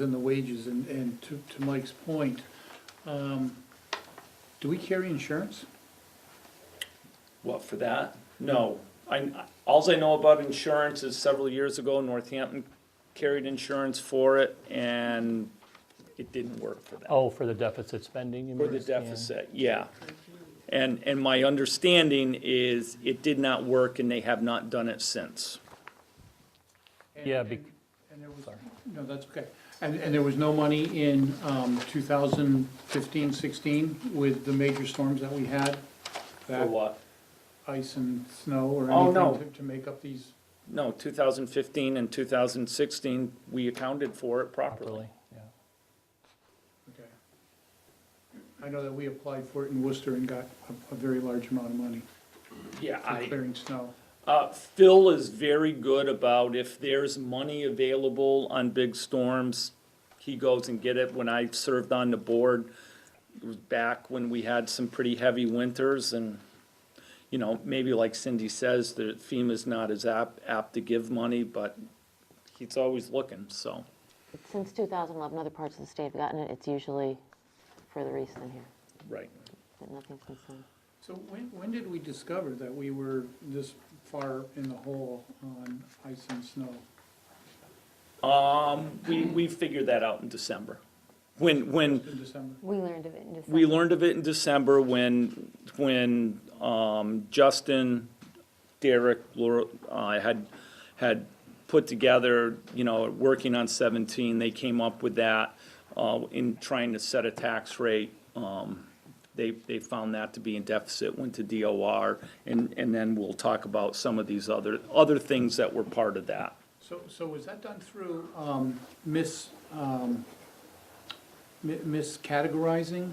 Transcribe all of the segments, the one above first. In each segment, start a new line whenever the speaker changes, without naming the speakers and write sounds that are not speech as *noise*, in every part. in the wages, and, and to, to Mike's point, um, do we carry insurance?
What, for that? No. I, alls I know about insurance is several years ago, Northampton carried insurance for it, and it didn't work for them.
Oh, for the deficit spending, you mean?
For the
Yeah.
deficit, yeah. And, and my understanding is it did not work, and they have not done it since.
And-
Yeah, bec-
and- And there was,
sorry.
no, that's okay. And, and there was no money in, um, 2015, 16 with the major storms that we had?
For
That
what?
ice and snow or
Oh, no.
anything to, to make up these?
No, two thousand fifteen and two thousand sixteen, we accounted for it properly.
Properly, yeah.
Okay. I know that we applied for it in Worcester and got a, a very large amount of money
Yeah,
for
I,
clearing snow.
Uh, Phil is very good about if there's money available on big storms, he goes and get it. When I served on the board, it was back when we had some pretty heavy winters and, you know, maybe like Cindy says, the FEMA's not as apt, apt to give money, but he's always looking, so.
Since 2011, other parts of the state have gotten it. It's usually further east than here,
Right.
but nothing since then.
So when, when did we discover that we were this far in the hole on ice and snow?
Um, we, we figured that out in December. When, when
In December?
We learned of it in December.
We learned of it in December when, when um, Justin, Derek, Laura, uh, had, had put together, you know, working on 17, they came up with that uh, in trying to set a tax rate. Um, They, they found that to be in deficit, went to DOR, and, and then we'll talk about some of these other, other things that were part of that.
So, so was that done through, um, mis, um, mi- miscategorizing?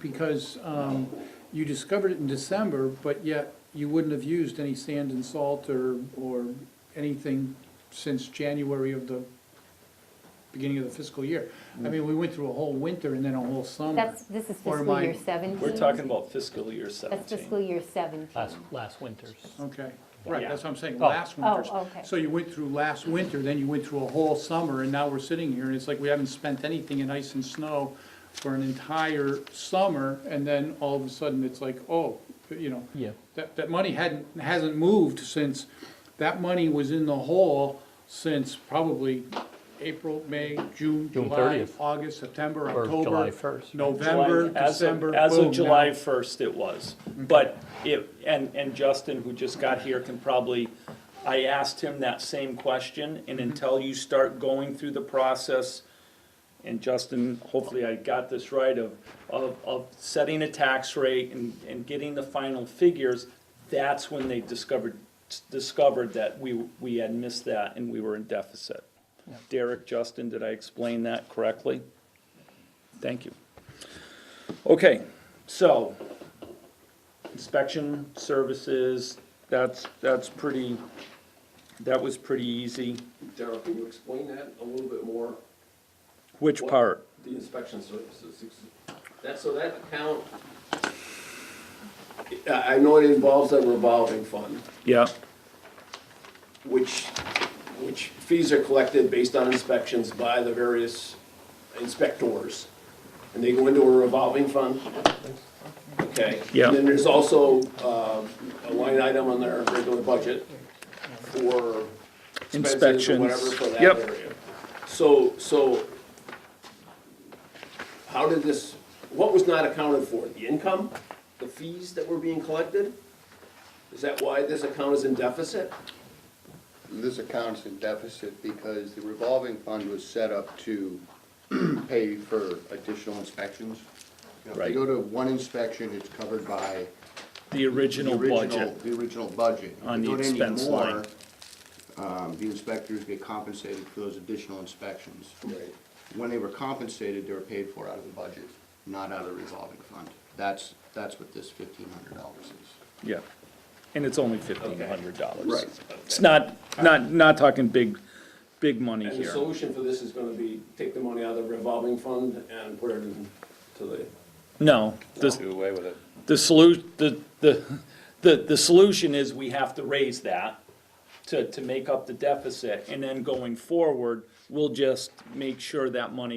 Because, um, you discovered it in December, but yet you wouldn't have used any sand and salt or, or anything since January of the beginning of the fiscal year. I mean, we went through a whole winter and then a whole summer.
That's, this is
Or
fiscal year
mine.
17.
We're talking about fiscal year 17.
That's fiscal year 17.
Last, last winter's.
Okay, right,
Yeah.
that's what I'm saying,
Oh.
last winter's.
Oh, okay.
So you went through last winter, then you went through a whole summer, and now we're sitting here, and it's like we haven't spent anything in ice and snow for an entire summer, and then all of a sudden, it's like, oh, you know,
Yeah.
that, that money hadn't, hasn't moved since, that money was in the hole since probably April, May, June,
June
July,
30th.
August, September,
Or
October.
July 1st.
November,
July- as of-
December,
As
boom,
of
now-
July first, it was, but it, and, and Justin, who just got here, can probably, I asked him that same question, and
Mm-hmm.
until you start going through the process, and Justin, hopefully I got this right, of, of, of setting a tax rate and, and getting the final figures, that's when they discovered, discovered that we, we had missed that and we were in deficit. Derek, Justin, did I explain that correctly? Thank you. Okay, so inspection services, that's, that's pretty, that was pretty easy.
Daryl, can you explain that a little bit more?
Which part?
The inspection services, that, so that account, I, I know it involves a revolving fund,
Yeah,
which, which fees are collected based on inspections by the various inspectors. And they go into a revolving fund? Okay.
Yeah.
And then there's also, uh, a line item on their regular budget for expenses or
Inspections.
whatever for that
Yep.
area. So, so how did this, what was not accounted for? The income, the fees that were being collected? Is that why this account is in deficit?
This account's in deficit because the revolving fund was set up to *clears throat* pay for additional inspections. You know, If
Right.
you go to one inspection, it's covered by
the
the
original
original,
budget.
the original budget. If
On
you
the
go to any
expense
more,
line.
Um, the inspectors get compensated for those additional inspections. When they were compensated, they were paid for out of the budget, not out of the revolving fund. That's, that's what this fifteen hundred dollars is.
Yeah, and it's only fifteen hundred dollars.
Right.
It's not, not, not talking big, big money
And the
here.
solution for this is gonna be take the money out of the revolving fund and put it into the,
No, the, the solu, the, the, the, the solution is we have to raise that to, to make up the deficit, and then going forward, we'll just make sure that money